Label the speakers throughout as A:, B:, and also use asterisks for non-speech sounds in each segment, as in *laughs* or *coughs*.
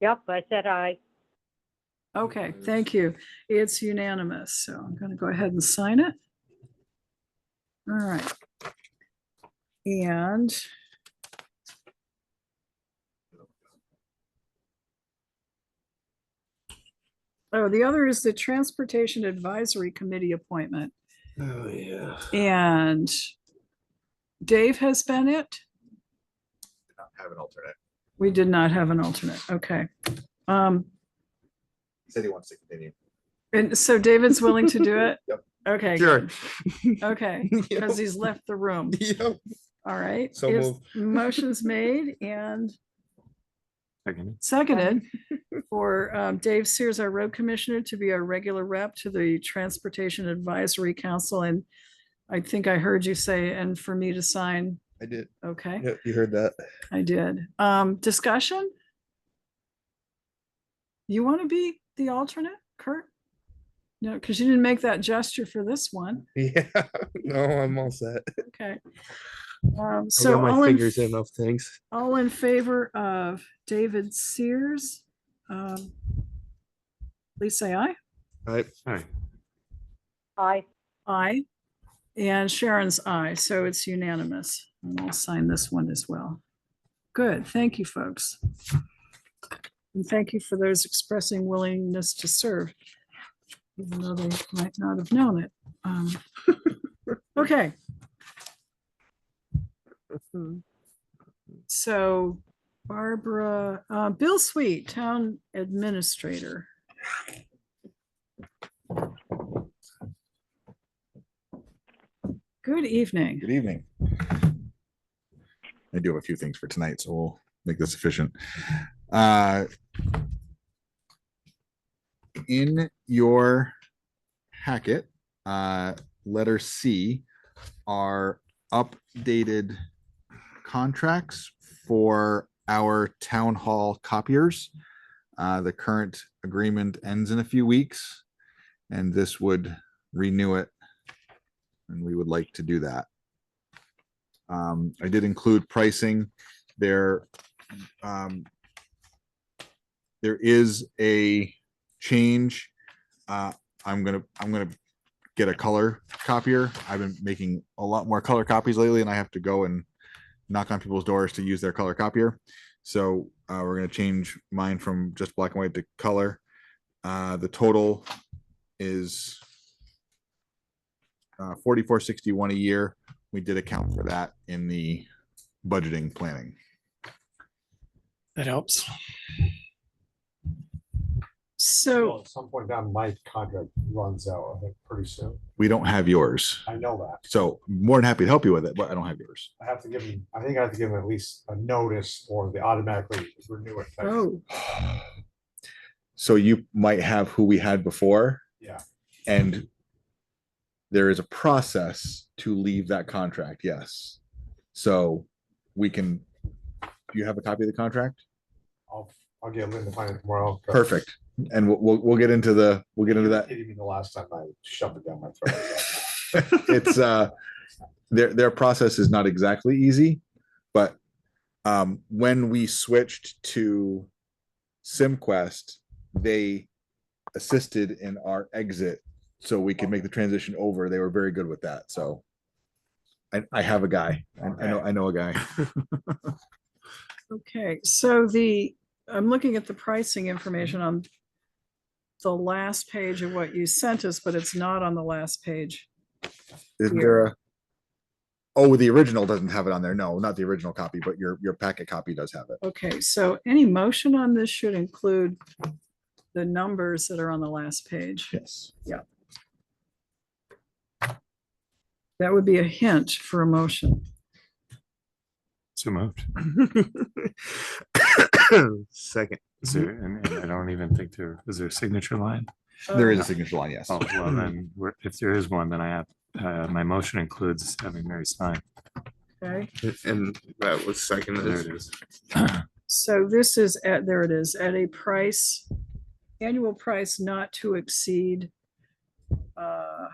A: Yep, I said aye.
B: Okay, thank you. It's unanimous, so I'm gonna go ahead and sign it. All right. And oh, the other is the Transportation Advisory Committee appointment
C: Oh, yeah.
B: and Dave has been it.
C: Have an alternate.
B: We did not have an alternate. Okay. Um,
C: He said he wants to continue.
B: and so David's willing to do it?
C: *laughs* Yep.
B: Okay.
C: Sure. *laughs*
B: good. Okay. because he's left the room.
C: Yep.
B: All right.
C: So
B: is- Motion's made and
D: Second.
B: seconded for um, Dave Sears, our road commissioner, to be our regular rep to the Transportation Advisory Council. And I think I heard you say, and for me to sign.
C: I did.
B: Okay,
C: Yep, you heard that. *laughs*
B: I did. Um, discussion? You want to be the alternate, Kurt? No, because you didn't make that gesture for this one.
C: Yeah. No, I'm all set.
B: Okay. Um,
D: I
B: so
D: got
B: all
D: my
B: in
D: fingers in enough things.
B: All in favor of David Sears? um, Please say aye.
C: All right.
D: All right.
A: Aye.
B: Aye. And Sharon's aye, so it's unanimous. And I'll sign this one as well. Good, thank you, folks. And thank you for those expressing willingness to serve. Even though they might not have known it. Um, *laughs* Okay. So Barbara, uh, Bill Sweet, Town Administrator. Good evening.
E: Good evening. I do have a few things for tonight, so we'll make this efficient. Uh, In your packet, uh, letter C are updated contracts for our town hall copiers. Uh, The current agreement ends in a few weeks, and this would renew it. And we would like to do that. Um, I did include pricing there. Um, there is a change. Uh, I'm gonna, I'm gonna get a color copier. I've been making a lot more color copies lately and I have to go and knock on people's doors to use their color copier. So, uh, we're gonna change mine from just black and white to color. Uh, the total is uh, forty-four sixty-one a year we did account for that in the budgeting planning.
F: That helps.
B: So.
G: Well, At some point down, my contract runs out, I think, pretty soon.
E: We don't have yours,
G: I know that.
E: so more than happy to help you with it, but I don't have yours.
G: I have to give them, I think I have to give them at least a notice or they automatically renew it. type of
B: Oh,
E: *sighs* So you might have who we had before.
G: Yeah.
E: And there is a process to leave that contract, yes. So we can, do you have a copy of the contract?
G: I'll, I'll get Lynn to find it tomorrow.
E: Perfect. And we'll, we'll, we'll get into the, we'll get into that.
G: Kidding me the last time I shoved it down my throat.
E: *laughs* it's uh their their process is not exactly easy but um when we switched to simquest they assisted in our exit so we could make the transition over they were very good with that so i, I have a guy I, I know i know a guy
B: okay, so the, I'm looking at the pricing information on the last page of what you sent us, but it's not on the last page.
E: Isn't
B: Yeah.
E: there a- oh the original doesn't have it on there no not the original copy but your your packet copy does have it
B: Okay, so any motion on this should include the numbers that are on the last page.
E: yes
B: That would be a hint for a motion.
D: So moved.
C: *coughs* Second.
D: Is there, and and I don't even think there, is there a signature line?
B: Uh,
E: there is a signature line yes
D: *laughs* Oh, well, then, we're- if there is one, then I have, uh, my motion includes having Mary sign.
B: Okay.
C: And that was second.
D: There it is.
B: So this is at, there it is, at a price, annual price not to exceed. uh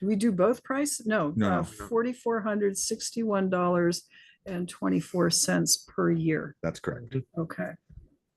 B: Do we do both price? No. uh,
E: No, no, no.
B: Forty-four hundred sixty-one dollars and twenty-four cents per year.
E: that's correct
B: Okay.